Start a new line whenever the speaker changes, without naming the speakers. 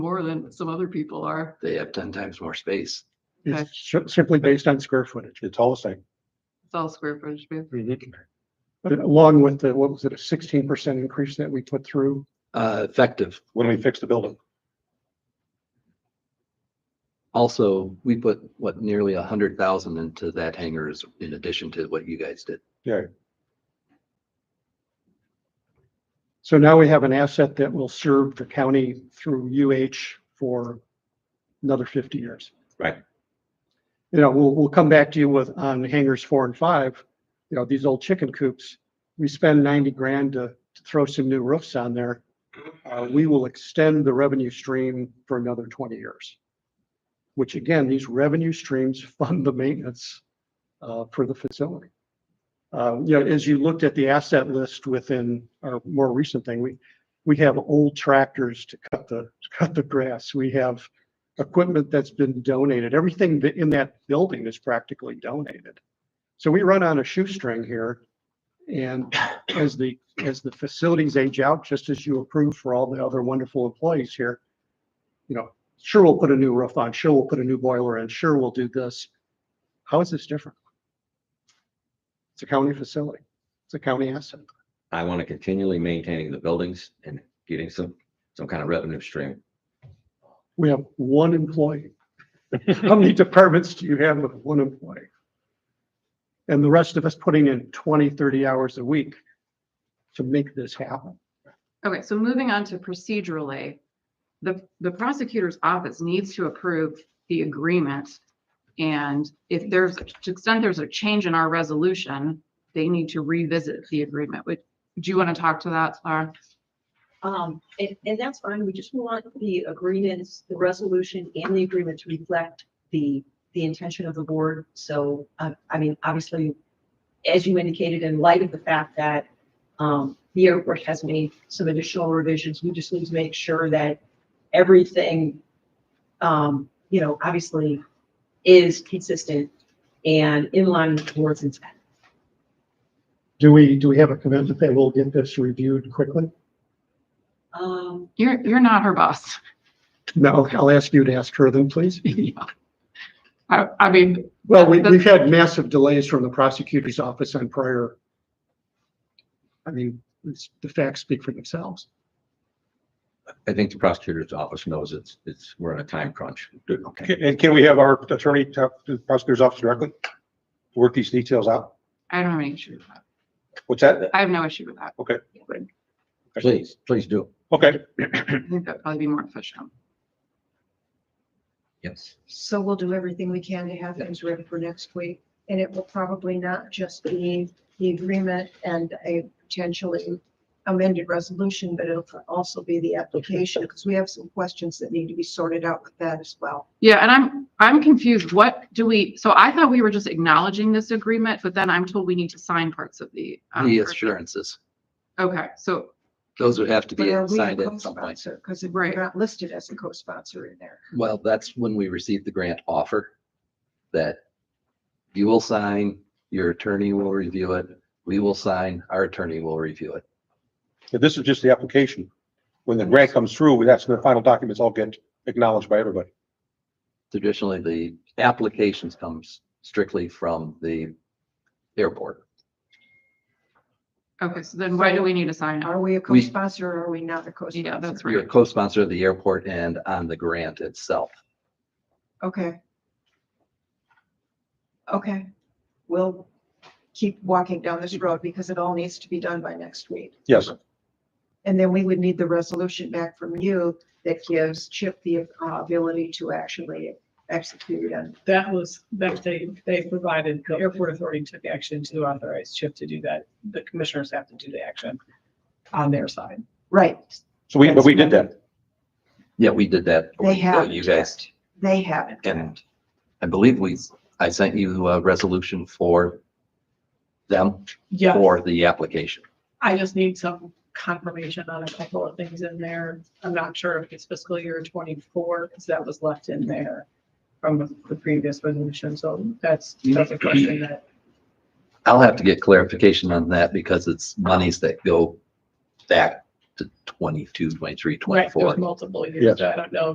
more than some other people are.
They have ten times more space.
Okay.
It's si- simply based on square footage. It's all the same.
It's all square footage. man.
But Along with the, what was it, a sixteen percent increase that we put through?
Uh, effective.
when we fix the building.
Also, we put what nearly a hundred thousand into that hangar is in addition to what you guys did.
So now we have an asset that will serve the county through UH for another fifty years.
Right.
You know, we'll, we'll come back to you with, on hangers four and five, you know, these old chicken coops. We spend ninety grand to to throw some new roofs on there. Uh, we will extend the revenue stream for another twenty years. Which again, these revenue streams fund the maintenance, uh, for the facility. Uh, you know, as you looked at the asset list within our more recent thing, we, we have old tractors to cut the, to cut the grass. We have equipment that's been donated. Everything that in that building is practically donated. So we run on a shoestring here. And as the, as the facilities age out, just as you approved for all the other wonderful employees here, you know, sure, we'll put a new roof on, sure, we'll put a new boiler in, sure, we'll do this. How is this different? It's a county facility. It's a county asset.
I want to continually maintaining the buildings and getting some, some kind of revenue stream.
We have one employee. How many departments do you have with one employee? And the rest of us putting in 20, 30 hours a week to make this happen.
Okay, so moving on to procedurally, the, the prosecutor's office needs to approve the agreement. And if there's, to the extent there's a change in our resolution, they need to revisit the agreement. Would, do you want to talk to that, Laura?
Um, and, and that's fine. We just want the agreements, the resolution and the agreement to reflect the, the intention of the board. So, uh, I mean, obviously, as you indicated, in light of the fact that, um, the airport has made some additional revisions, we just need to make sure that everything, um, you know, obviously is consistent and in line with the board's intent.
Do we, do we have a commitment that we'll get this reviewed quickly?
Um,
You're, you're not her boss.
No, I'll ask you to ask her then, please.
I, I mean,
Well, we, we've had massive delays from the prosecutor's office on prior. I mean, it's- the facts speak for themselves.
I think the prosecutor's office knows it's, it's, we're in a time crunch. Okay.
And can we have our attorney talk to the prosecutor's office directly? Work these details out?
I don't have any issue with that.
What's that?
I have no issue with that.
Please, please do.
Okay,
I think that'd probably be more efficient.
Yes.
So we'll do everything we can to have things ready for next week. And it will probably not just be the agreement and a potentially amended resolution, but it'll also be the application because we have some questions that need to be sorted out with that as well.
Yeah, and I'm, I'm confused. What do we, so I thought we were just acknowledging this agreement, but then I'm told we need to sign parts of the. um,
The
version.
assurances,
Okay, so,
those would have to
But
be
are we a
signed at some point.
co-sponsor? Because we're
Right.
not listed as a co-sponsor in there.
Well, that's when we received the grant offer that you will sign, your attorney will review it, we will sign, our attorney will review it.
so this is just the application. When the grant comes through, that's when the final documents all get acknowledged by everybody.
Traditionally, the applications comes strictly from the airport.
okay, so then why do we need to sign it?
Are we a co-sponsor or are we not a co-sponsor?
Yeah, that's
You're a
right.
co-sponsor of the airport and on the grant itself.
Okay. Okay, we'll keep walking down this road because it all needs to be done by next week.
Yes,
And then we would need the resolution back from you that gives Chip the uh, ability to actually execute and
That was, that they, they provided, the airport authority took action to authorize Chip to do that. The commissioners have to do the action on their side.
Right,
so we, but we did that.
Yeah, we did that.
they have.
You guys
They haven't.
And I believe we, I sent you a resolution for them
Yeah,
for the application.
I just need some confirmation on a couple of things in there. I'm not sure if it's fiscal year twenty-four, because that was left in there from the previous resolution. So that's, that's a question that,
I'll have to get clarification on that because it's monies that go back to 22, 23,
right,
24.
there's multiple
Yes.
years. I don't know